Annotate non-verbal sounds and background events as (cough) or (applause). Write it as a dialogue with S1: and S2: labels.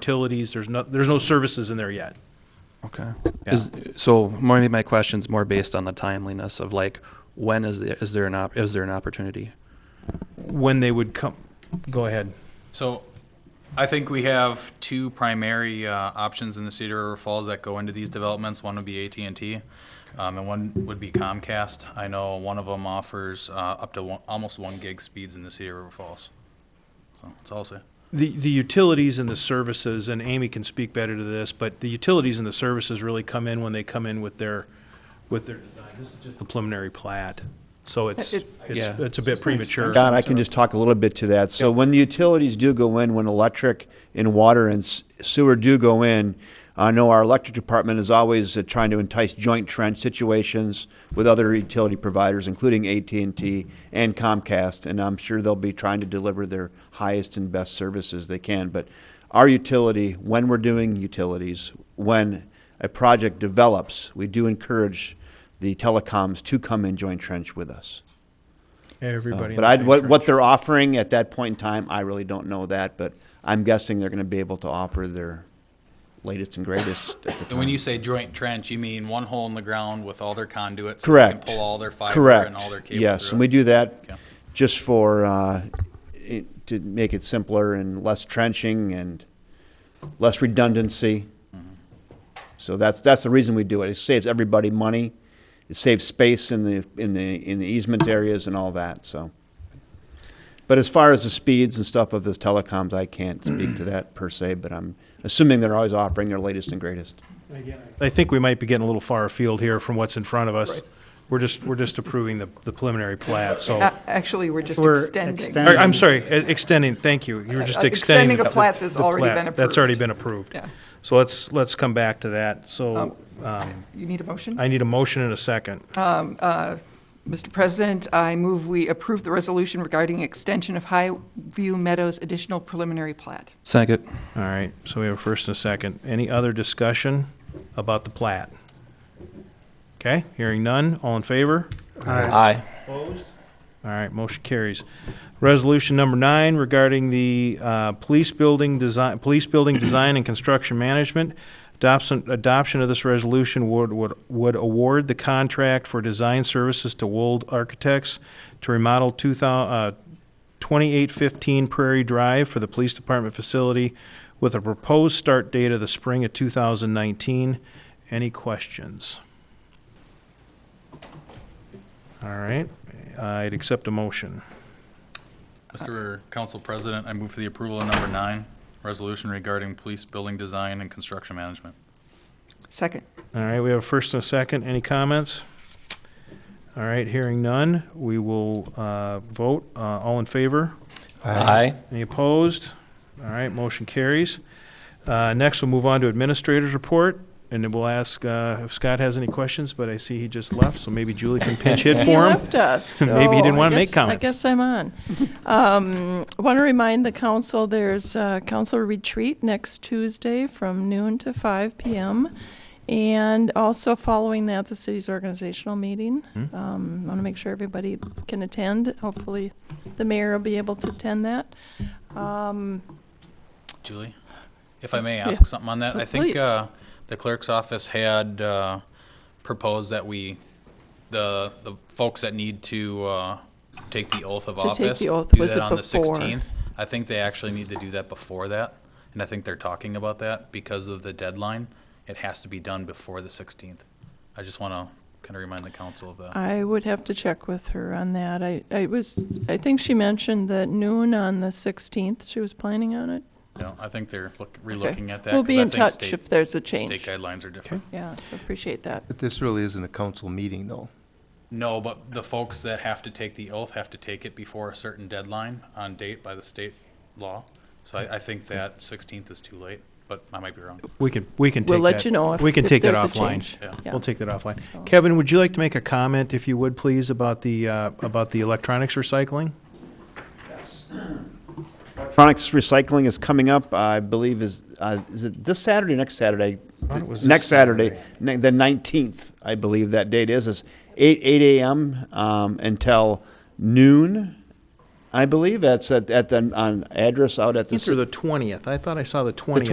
S1: utilities, there's no, there's no services in there yet.
S2: Okay.
S1: Yeah.
S2: Is, so maybe my question's more based on the timeliness of like, when is the, is there an op, is there an opportunity?
S1: When they would come, go ahead.
S3: So I think we have two primary uh, options in the Cedar River Falls that go into these developments. One would be at and T, and one would be Comcast. I know one of them offers uh, up to one- almost one gig speeds in the Cedar River Falls. So that's all I'll say.
S1: The, the utilities and the services, and Amy can speak better to this, but the utilities and the services really come in when they come in with their, with their design. This is just the preliminary plat, so it's, it's,
S2: Yeah.
S1: it's a bit premature.
S4: Don, I can just talk a little bit to that. So when the utilities do go in, when electric and water and s- sewer do go in, I know our electric department is always uh, trying to entice joint trench situations with other utility providers, including AT&T and Comcast, and I'm sure they'll be trying to deliver their highest and best services they can. But our utility, when we're doing utilities, when a project develops, we do encourage the telecoms to come and joint trench with us.
S1: Everybody. in
S4: But
S1: the
S4: I,
S1: same
S4: what, what
S1: trench.
S4: they're offering at that point in time, I really don't know that, but I'm guessing they're gonna be able to offer their latest and greatest at the
S3: And when
S4: time.
S3: you say joint trench, you mean one hole in the ground with all their conduits? so they can
S4: Correct.
S3: Pull all their fiber and
S4: Correct,
S3: all their cable
S4: yes, and
S3: through
S4: we
S3: it?
S4: do that
S3: Okay.
S4: just for, uh, it, to make it simpler and less trenching and less redundancy.
S3: Mm-hmm.
S4: So that's, that's the reason we do it, it saves everybody money, it saves space in the, in the, in the easement areas and all that, so. But as far as the speeds and stuff of those telecoms, I can't speak to that per se, but I'm assuming they're always offering their latest and greatest.
S1: I think we might be getting a little far afield here from what's in front of us. We're just, we're just approving the, the preliminary plat, so.
S5: A- Uh, Actually, we're just
S1: We're-
S5: extending.
S6: Extend-
S1: Or, I'm sorry, e- extending, thank you. You were just
S5: Uh,
S1: extending.
S5: extending a
S1: the-
S5: plat that's
S1: the
S5: already
S1: plat.
S5: been
S1: That's already
S5: approved.
S1: been approved.
S5: Yeah.
S1: So let's, let's come back to that. So um,
S5: You need a motion?
S1: I need a motion and a second.
S5: Uh. Mr. President, I move we approve the resolution regarding extension of Highview Meadows additional preliminary plat.
S2: Second.
S1: All right, so we have a first and a second. Any other discussion about the plat? Okay, hearing none, all in favor?
S2: Aye.
S1: Opposed? All right, motion carries. Resolution number nine regarding the uh, police building design, police building design and construction management. Adoption, adoption of this resolution would, would, would award the contract for design services to Wold Architects to remodel two thou, uh, 2815 Prairie Drive for the Police Department facility with a proposed start date of the spring of 2019. Any questions? All right, I'd accept a motion.
S3: Mr. Council President, I move for the approval of number nine, resolution regarding police building design and construction management.
S5: Second.
S1: All right, we have a first and a second. Any comments? All right, hearing none, we will uh, vote. Uh, All in favor?
S2: Aye.
S1: Any opposed? All right, motion carries. Uh, Next, we'll move on to Administrator's Report, and then we'll ask uh, if Scott has any questions, but I see he just left, so maybe Julie
S6: (laughs)
S1: can pinch hit
S6: He
S1: for him.
S6: left us.
S1: (laughs) Maybe he didn't
S6: so I
S1: wanna make
S6: guess-
S1: comments.
S6: I guess I'm on. Um, Want to remind the council, there's a council retreat next Tuesday from noon to five PM. And also following that, the city's organizational meeting.
S1: Hmm.
S6: Um, Want to make sure everybody can attend. Hopefully, the mayor will be able to attend that. Um,
S3: Julie, if I may
S6: Yeah.
S3: ask something on that, I think
S6: Please.
S3: uh, the clerk's office had uh, proposed that we, the, the folks that need to uh, take the oath of
S6: To take
S3: office.
S6: the oath,
S3: do
S6: was
S3: that
S6: it
S3: on the
S6: before?
S3: 16th. I think they actually need to do that before that, and I think they're talking about that because of the deadline. It has to be done before the 16th. I just want to kind of remind the council of that.
S6: I would have to check with her on that. I, I was, I think she mentioned that noon on the 16th, she was planning on it.
S3: You know, I think they're look-
S6: Okay.
S3: relooking at that.
S6: We'll
S3: 'cause
S6: be
S3: I
S6: in
S3: think
S6: touch
S3: state-
S6: if there's a
S3: State
S6: change.
S3: guidelines are different.
S6: Yeah, so appreciate that.
S7: But this really isn't a council meeting, though.
S3: No, but the folks that have to take the oath have to take it before a certain deadline on date by the state law. So I, I think that sixteenth is too late, but I might be wrong.
S1: We can, we can take that.
S6: We'll let you know if
S1: We can
S6: if
S1: take that
S6: there's a
S1: offline.
S6: change.
S3: Yeah.
S6: Yeah.
S1: We'll take that offline. Kevin, would you like to make a comment, if you would, please, about the, uh, about the electronics recycling?
S4: Electronics recycling is coming up, I believe is, uh, is it this Saturday, next Saturday?
S1: thought it was this
S4: Next Saturday, ne- the nineteenth, I believe that date is, is eight, eight AM, um, until noon. I believe that's at, uh, at the, on address out at the.
S1: It's
S4: ci-
S1: the 20th. I thought I saw the 20th.